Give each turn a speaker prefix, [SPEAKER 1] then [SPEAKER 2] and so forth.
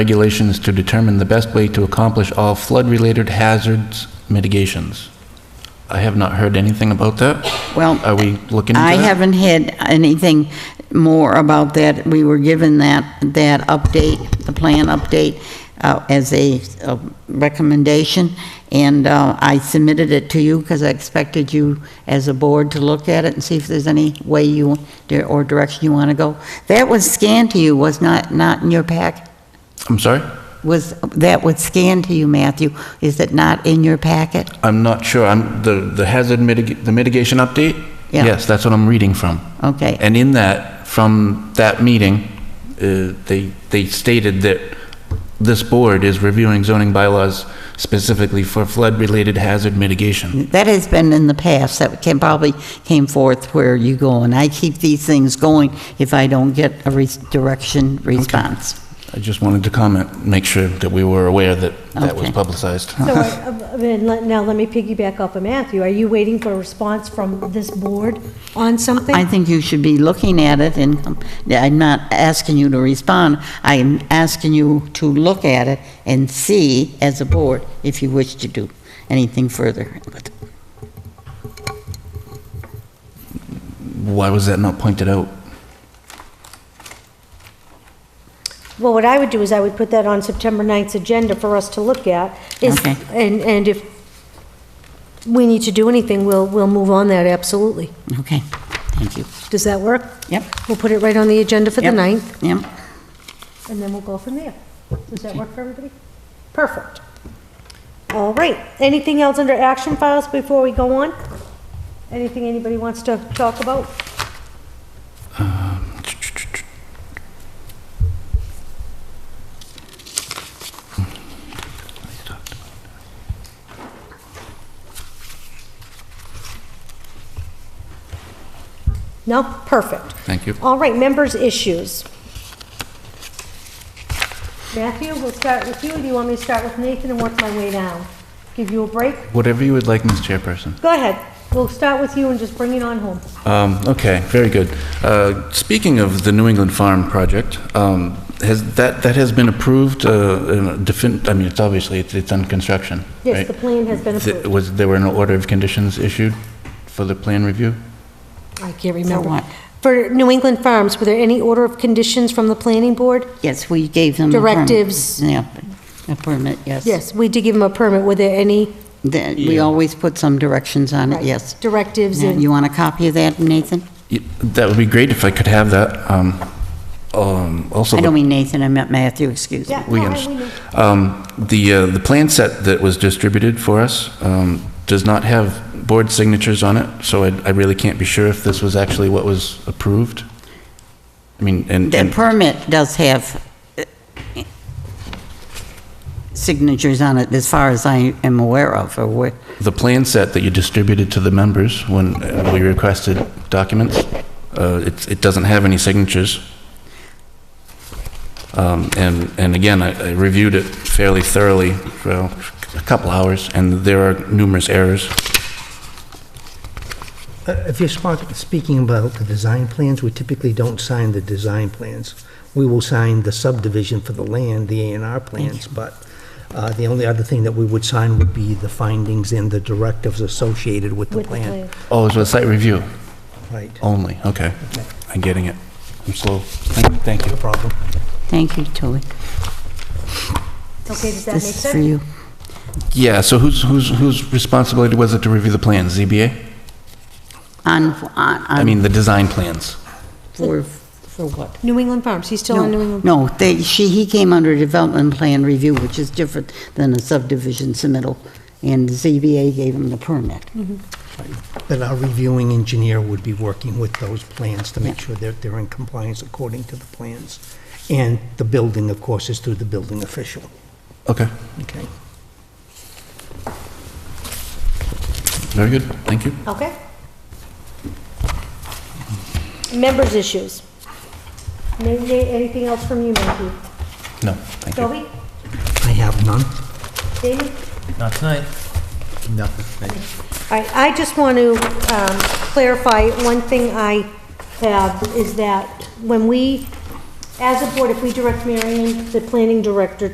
[SPEAKER 1] regulations to determine the best way to accomplish all flood-related hazards mitigations. I have not heard anything about that.
[SPEAKER 2] Well,
[SPEAKER 1] Are we looking into
[SPEAKER 2] I
[SPEAKER 1] that?
[SPEAKER 2] haven't had anything more about that. We were given that, that update, the plan update, uh, as a uh, recommendation, and uh, I submitted it to you because I expected you, as a board, to look at it and see if there's any way you, or direction you want to go. That was scanned to you, was not, not in your pack?
[SPEAKER 1] I'm sorry?
[SPEAKER 2] Was, that was scanned to you, Matthew? Is it not in your packet?
[SPEAKER 1] I'm not sure. I'm, the, the hazard mitig, the mitigation update?
[SPEAKER 2] Yeah.
[SPEAKER 1] Yes, that's what I'm reading from.
[SPEAKER 2] Okay.
[SPEAKER 1] And in that, from that meeting, uh, they, they stated that this board is reviewing zoning bylaws specifically for flood-related hazard mitigation.
[SPEAKER 2] That has been in the past, that can, probably came forth where you go, and I keep these things going if I don't get a re- direction response.
[SPEAKER 1] I just wanted to comment, make sure that we were aware that that was
[SPEAKER 2] Okay.
[SPEAKER 1] publicized.
[SPEAKER 3] So, I- I mean, let- now let me piggyback off of Matthew. Are you waiting for a response from this board on something?
[SPEAKER 2] I think you should be looking at it, and um, I'm not asking you to respond, I am asking you to look at it and see, as a board, if you wish to do anything further. But
[SPEAKER 1] Why was that not pointed out?
[SPEAKER 3] Well, what I would do is I would put that on September 9th's agenda for us to look at. Is-
[SPEAKER 2] Okay.
[SPEAKER 3] And, and if we need to do anything, we'll, we'll move on that, absolutely.
[SPEAKER 2] Okay, thank you.
[SPEAKER 3] Does that work?
[SPEAKER 2] Yep.
[SPEAKER 3] We'll put it right on the agenda for
[SPEAKER 2] Yep,
[SPEAKER 3] the 9th,
[SPEAKER 2] Yep,
[SPEAKER 3] and then we'll go from there. Does that work for everybody? Perfect. All right. Anything else under action files before we go on? Anything anybody wants to talk about? No? Perfect.
[SPEAKER 1] Thank you.
[SPEAKER 3] All right, members' issues. Matthew, we'll start with you. Do you want me to start with Nathan and work my way down? Give you a break?
[SPEAKER 1] Whatever you would like, Ms. Chairperson.
[SPEAKER 3] Go ahead. We'll start with you and just bring it on home.
[SPEAKER 1] Um, Okay, very good. Uh, Speaking of the New England Farm project, um, has, that, that has been approved, uh, in a defin- I mean, it's obviously, it's it's on construction,
[SPEAKER 3] Yes,
[SPEAKER 1] right?
[SPEAKER 3] the plan has been
[SPEAKER 1] Th-
[SPEAKER 3] approved.
[SPEAKER 1] Was, there were no order of conditions issued for the plan review?
[SPEAKER 3] I
[SPEAKER 2] what?
[SPEAKER 3] can't remember. For New England Farms, were there any order of conditions from the planning board?
[SPEAKER 2] yes, we gave them. a permit.
[SPEAKER 3] Directives.
[SPEAKER 2] Yeah, a permit, yes.
[SPEAKER 3] Yes, we did give them a permit. Were there any?
[SPEAKER 2] That, we always put some directions on it, Mm, yes.
[SPEAKER 3] Directives
[SPEAKER 2] Yeah,
[SPEAKER 3] and,
[SPEAKER 2] You want a copy of that, Nathan?
[SPEAKER 1] Y- That would be great if I could have that. um, um, Also,
[SPEAKER 2] I
[SPEAKER 1] the
[SPEAKER 2] don't mean Nathan, I meant Matthew, excuse me.
[SPEAKER 3] yeah.
[SPEAKER 1] We
[SPEAKER 3] no, I-
[SPEAKER 1] understand.
[SPEAKER 3] know.
[SPEAKER 1] Um, The, uh, the plan set that was distributed for us um, does not have board signatures on it, so I I really can't be sure if this was actually what was approved. I mean, and,
[SPEAKER 2] The
[SPEAKER 1] and-
[SPEAKER 2] permit does have uh, signatures on it, as far as I am aware of, or what,
[SPEAKER 1] the plan set that you distributed to the members when uh, we requested documents, uh, it's- it doesn't have any signatures. Um, And, and again, I I reviewed it fairly thoroughly for a couple hours, and there are numerous errors.
[SPEAKER 4] Uh, If you're spark- speaking about the design plans, we typically don't sign the design plans. We will sign the subdivision for the land, the A and R plans, but uh, the only other thing that we would sign would be the findings and the directives associated with the
[SPEAKER 3] With the
[SPEAKER 4] plan.
[SPEAKER 3] plan.
[SPEAKER 1] Oh, it was a site review?
[SPEAKER 4] Right,
[SPEAKER 1] Only, okay. I'm getting it. I'm slow. Thank thank you.
[SPEAKER 4] no problem.
[SPEAKER 2] thank you, Tilly.
[SPEAKER 3] Okay, does that make
[SPEAKER 2] This is for
[SPEAKER 3] sense?
[SPEAKER 2] you.
[SPEAKER 1] Yeah, so whose, whose, whose responsibility was it to review the plans? ZBA?
[SPEAKER 2] On, on,
[SPEAKER 1] I
[SPEAKER 2] on,
[SPEAKER 1] mean, the design plans.
[SPEAKER 2] for, for what?
[SPEAKER 3] New England Farms, he's still on New England?
[SPEAKER 2] No, they, she, he came under development plan review, which is different than a subdivision submittal, and ZBA gave him the permit.
[SPEAKER 4] But our reviewing engineer would be working with those plans to make sure that they're in compliance according to the plans. And the building, of course, is through the building official,
[SPEAKER 1] Okay,
[SPEAKER 4] okay?
[SPEAKER 1] very good, thank you.
[SPEAKER 3] Okay. Members' issues. May- may- Anything else from you, Matthew?
[SPEAKER 1] No, thank you.
[SPEAKER 3] Toby?
[SPEAKER 4] I have none.
[SPEAKER 3] David?
[SPEAKER 5] Not tonight. Nothing tonight.
[SPEAKER 3] All right, I just want to um, clarify, one thing I have is that when we as a board, if we direct Marion, the planning director,